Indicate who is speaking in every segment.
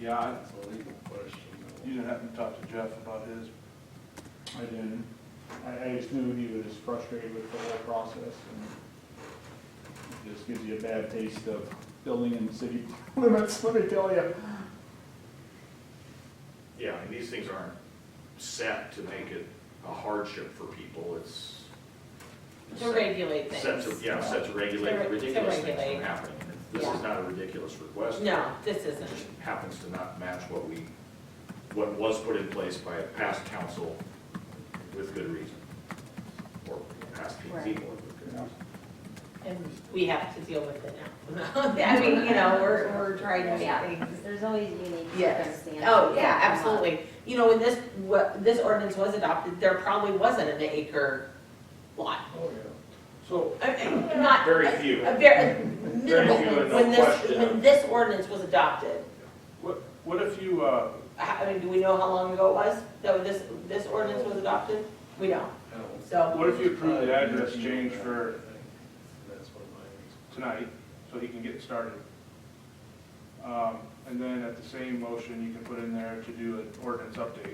Speaker 1: Yeah, I-
Speaker 2: That's a legal question.
Speaker 1: you didn't happen to talk to Jeff about his?
Speaker 3: I didn't, I, I just knew he was frustrated with the whole process and it just gives you a bad taste of building in city limits, let me tell you.
Speaker 4: Yeah, and these things aren't set to make it a hardship for people, it's.
Speaker 5: To regulate
Speaker 4: Set to,
Speaker 5: things.
Speaker 4: yeah, set to regulate
Speaker 5: To re-
Speaker 4: the
Speaker 5: to
Speaker 4: ridiculous things from
Speaker 5: regulate.
Speaker 4: happening. This
Speaker 5: Yeah.
Speaker 4: is not a ridiculous request.
Speaker 5: No, this
Speaker 4: It
Speaker 5: isn't.
Speaker 4: just happens to not match what we, what was put in place by a past council with good reason. Or past people
Speaker 5: Right.
Speaker 4: with good reason.
Speaker 5: And we have to deal with it now. I mean, you know, we're, we're trying to
Speaker 6: Yeah,
Speaker 5: make things.
Speaker 6: because there's always unique
Speaker 5: Yes.
Speaker 6: circumstances.
Speaker 5: Oh, yeah,
Speaker 6: that come up.
Speaker 5: absolutely. You know, when this, what, this ordinance was adopted, there probably wasn't an acre lot.
Speaker 2: Oh, yeah.
Speaker 4: So,
Speaker 5: I- I- Not.
Speaker 4: Very few.
Speaker 5: A very, minimal,
Speaker 4: Very few and no
Speaker 5: when this,
Speaker 4: question.
Speaker 5: when this ordinance was adopted.
Speaker 1: What, what if you, uh,
Speaker 5: How- I mean, do we know how long ago it was that this, this ordinance was adopted? We don't,
Speaker 2: I don't-
Speaker 5: so.
Speaker 1: what if you approve the
Speaker 2: Uh,
Speaker 1: address
Speaker 2: you know,
Speaker 1: change
Speaker 2: that,
Speaker 1: for
Speaker 2: I think That's what mine
Speaker 1: tonight, so he can get started. Um, And then at the same motion, you can put in there to do an ordinance update.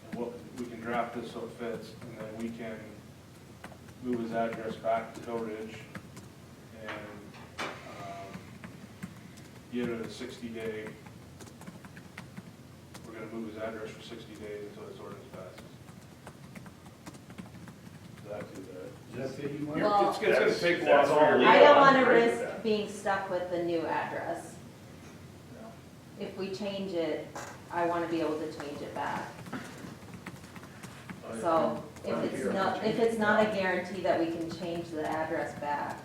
Speaker 1: And we'll we can draft this so it fits, and then we can move his address back to Hill Ridge and um, give it a sixty day. We're gonna move his address for sixty days until this ordinance passes. Does that do that?
Speaker 2: is. Is that the you want?
Speaker 6: Well-
Speaker 1: It's gonna it's gonna take a while.
Speaker 4: That's- that's all
Speaker 1: for-
Speaker 4: legal.
Speaker 6: I don't want
Speaker 4: I'm
Speaker 6: to
Speaker 4: great with
Speaker 6: risk
Speaker 4: that.
Speaker 6: being stuck with the new address. If we change it, I want to be able to change it back.
Speaker 2: I-
Speaker 6: So if
Speaker 2: I'm here,
Speaker 6: it's
Speaker 2: I'll
Speaker 6: not,
Speaker 2: change
Speaker 6: if
Speaker 2: it.
Speaker 6: it's not a guarantee that we can change the address back.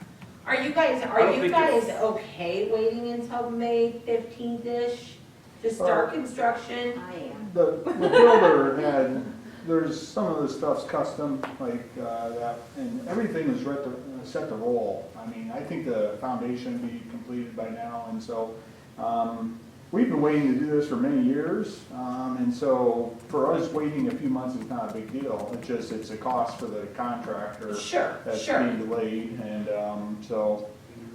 Speaker 5: Are you guys,
Speaker 1: I
Speaker 5: are
Speaker 1: don't
Speaker 5: you
Speaker 1: think
Speaker 5: guys
Speaker 1: it's-
Speaker 5: okay waiting until May fifteenth-ish to start construction?
Speaker 6: I am.
Speaker 3: The, the builder had, there's, some of the stuff's custom, like, uh, that, and everything is right to, set to roll. I mean, I think the foundation would be completed by now, and so, um, we've been waiting to do this for many years. Um, and so, for us, waiting a few months is not a big deal, it's just, it's a cost for the contractor
Speaker 5: Sure,
Speaker 3: that's
Speaker 5: sure.
Speaker 3: being delayed, and, um, so,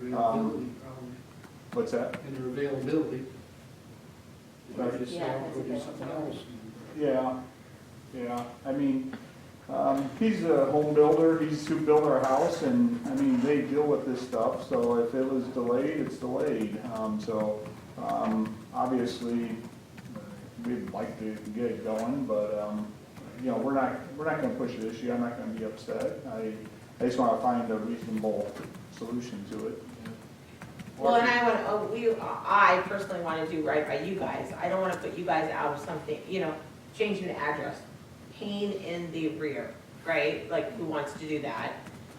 Speaker 7: And your availability problem,
Speaker 3: what's that?
Speaker 7: and your availability.
Speaker 3: Right.
Speaker 7: Just say,
Speaker 6: Yeah,
Speaker 7: I'll go do
Speaker 6: that's
Speaker 7: something
Speaker 6: available.
Speaker 7: else.
Speaker 3: Yeah, yeah, I mean, um, he's a home builder, he's who built our house, and, I mean, they deal with this stuff, so if it was delayed, it's delayed, um, so, um, obviously, we'd like to get it going, but, um, you know, we're not, we're not gonna push the issue, I'm not gonna be upset, I, I just wanna find a reasonable solution to it.
Speaker 5: Well, and I want, oh, we, I personally want to do right by you guys. I don't want to put you guys out of something, you know, changing the address. Pain in the rear, right? Like, who wants to do that?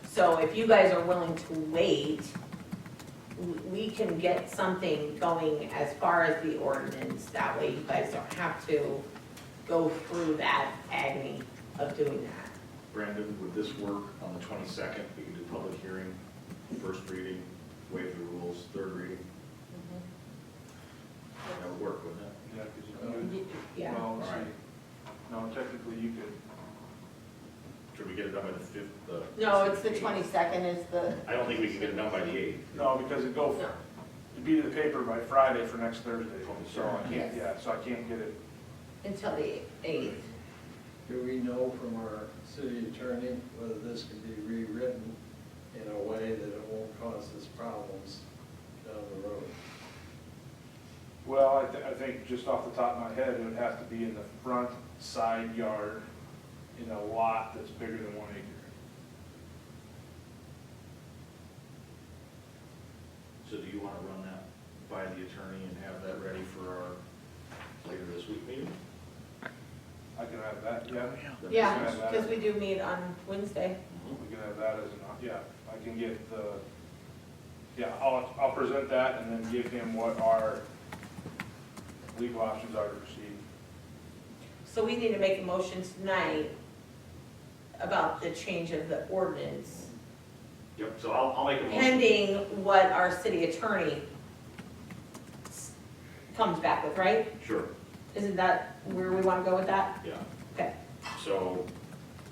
Speaker 5: So if you guys are willing to wait, w- we can get something going as far as the ordinance. That way you guys don't have to go through that agony of doing that.
Speaker 4: Brandon, would this work on the twenty-second? We can do public hearing, first reading, waive the rules, third reading.
Speaker 5: Mm-hmm.
Speaker 4: That would work, wouldn't it?
Speaker 1: Yeah, 'cause you
Speaker 5: Y-
Speaker 1: could,
Speaker 5: Yeah,
Speaker 1: well, let's
Speaker 4: Alright.
Speaker 1: see. No, technically you could,
Speaker 4: Should we get it done by the fifth, the?
Speaker 5: no, it's the twenty-second is the,
Speaker 4: I don't think we can get it done by the eighth.
Speaker 1: no, because it go,
Speaker 5: no.
Speaker 1: it'd be to the paper by Friday for next Thursday, so I
Speaker 5: Yes.
Speaker 1: can't, yeah, so I can't get it.
Speaker 5: Until the eighth.
Speaker 2: Do we know from our city attorney whether this can be rewritten in a way that it won't cause us problems down the road?
Speaker 1: Well, I, thi- I think just off the top of my head, it would have to be in the front side yard in a lot that's bigger than one acre.
Speaker 4: So do you want to run that by the attorney and have that ready for our later this week meeting?
Speaker 1: I can have that, Oh, yeah,
Speaker 4: That makes
Speaker 5: Yeah,
Speaker 4: sense?
Speaker 5: because we do meet on Wednesday.
Speaker 4: Mhm.
Speaker 1: we can have that as an, op- yeah, I can get the, yeah, I'll, I'll present that and then give him what our legal options are to proceed.
Speaker 5: So we need to make a motion tonight about the change of the ordinance,
Speaker 4: Yep, so I'll, I'll make a motion.
Speaker 5: pending what our city attorney s- comes back with, right?
Speaker 4: Sure,
Speaker 5: Isn't that where we want to go with that?
Speaker 4: yeah.
Speaker 5: Okay.
Speaker 4: So,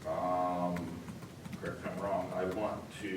Speaker 4: um, correct if I'm wrong, I want to